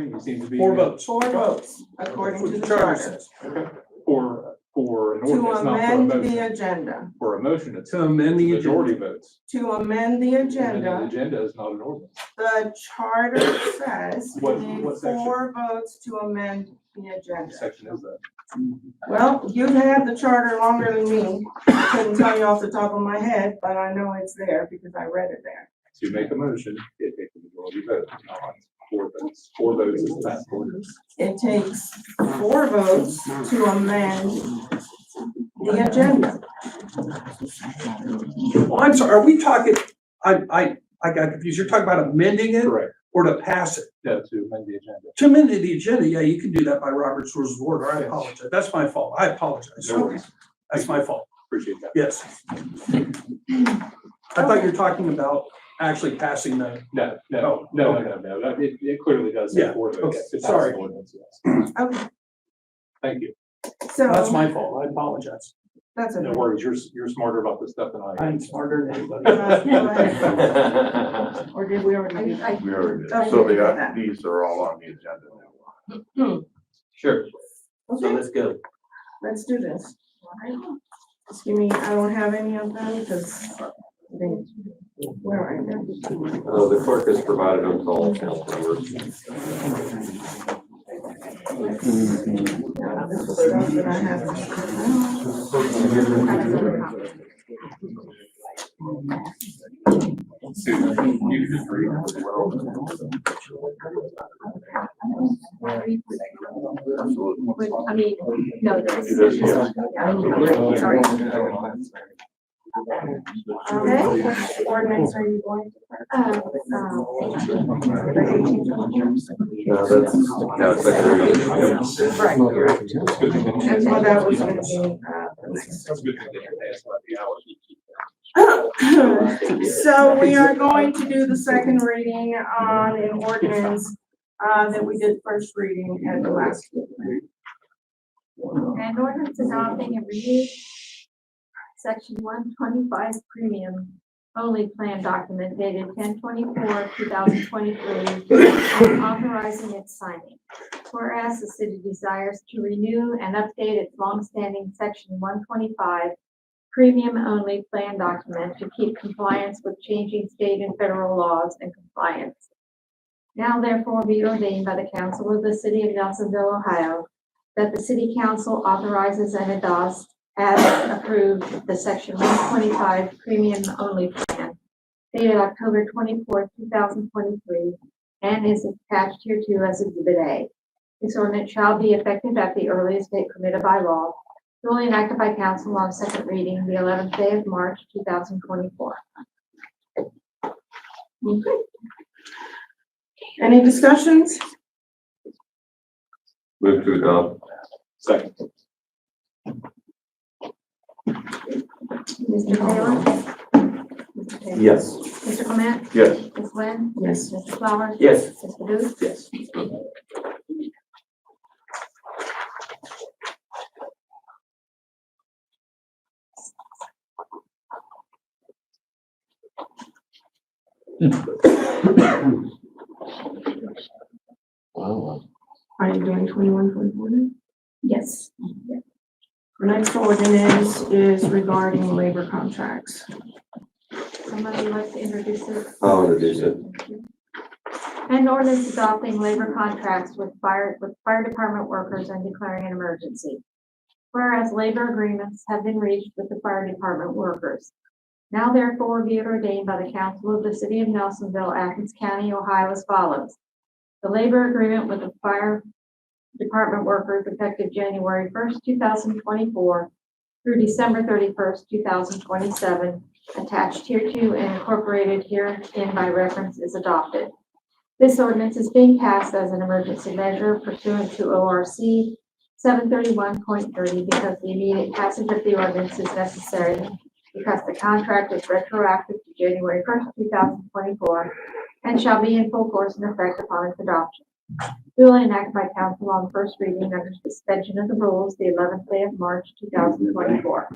It seems to be. Four votes. Four votes, according Which to the charter charter. says. Okay. For, for an To ordinance, not for a amend the motion. agenda, For a motion, it's To amend the majority agenda. votes. to amend the And then the agenda, agenda is not an ordinance. the charter says we What- need what section? four votes to amend the agenda. Section is that. Well, you've had the charter longer than me. I Couldn't tell you off the top of my head, but I know it's there because I read it there. To make a motion, it takes a majority vote, not four votes. Four votes is that ordinance. It takes four votes to amend the agenda. Well, I'm sorry, are we talking, I, I, I got confused. You're talking about amending it Correct. or to pass it? No, to amend the agenda. To amend the agenda, yeah, you can do that by Robert's rules of order. I apologize. That's my fault. I apologize. No worries. That's my fault. Appreciate that. Yes. I thought you were talking about actually passing the, No, no, no, no, no, no. That- It, it clearly does say Yeah, four okay, votes. to pass sorry. an ordinance, yes. Okay, Thank you. that's so, my fault. I apologize. that's No it. worries. You're, s- you're smarter about this stuff than I am. I'm smarter than anybody. Uh, We Or did we already do that? already did. Okay, So we did the, that. these are all on the agenda now. Sure, so Okay, let's go. let's do this. Just give me, I don't have any of them because they, where are they? Uh, the clerk has provided them to all council members. No, this was stuff that I had. Susan, you can just read. Would- I mean, no, It is, there's. yes. Sorry. Okay, ordinance are you going Uh, uh, No, that's, no, it's like they're gonna- to? Right. It's good to That's know. what that was gonna be, uh, the next. It's good to know. That's what the hour is. So we are going to do the second reading on an ordinance uh, that we did first reading at the last. meeting. An ordinance adopting a review, section one twenty-five premium only plan document dated ten twenty-four, two thousand twenty-three, authorizing its signing. Whereas the city desires to renew and update its longstanding section one twenty-five premium only plan document to keep compliance with changing state and federal laws and compliance. Now therefore be ordained by the council of the city of Nelsonville, Ohio, that the city council authorizes and adopts as approved the section one twenty-five premium only plan dated October twenty-fourth, two thousand twenty-three, and is attached hereto as exhibit A. This ordinance shall be effective at the earliest date permitted by law, duly enacted by council on second reading the eleventh day of March, two thousand twenty-four. Any discussions? Move to adopt. Second. Mr. Taylor? Mr. Taylor? Yes. Mr. Clement? Yes, Ms. Lynn? Yes. Mr. Flowers? Yes. Mr. Booth? Yes. Are you doing twenty-one, twenty-four now? Yes. Our next ordinance is regarding labor contracts. Somebody would like to introduce it? I'll introduce it. An ordinance adopting labor contracts with fire, with fire department workers and declaring an emergency. Whereas labor agreements have been reached with the fire department workers. Now therefore be it ordained by the council of the city of Nelsonville, Athens County, Ohio as follows. The labor agreement with the fire department workers effective January first, two thousand twenty-four through December thirty-first, two thousand twenty-seven, attached hereto and incorporated herein by reference is adopted. This ordinance is being passed as an emergency measure pursuant to O R C seven thirty-one point thirty because the immediate passage of the ordinance is necessary because the contract is retroactive to January first, two thousand twenty-four and shall be in full force and effect upon its adoption. Duly enacted by council on first reading under suspension of the rules the eleventh day of March, two thousand twenty-four.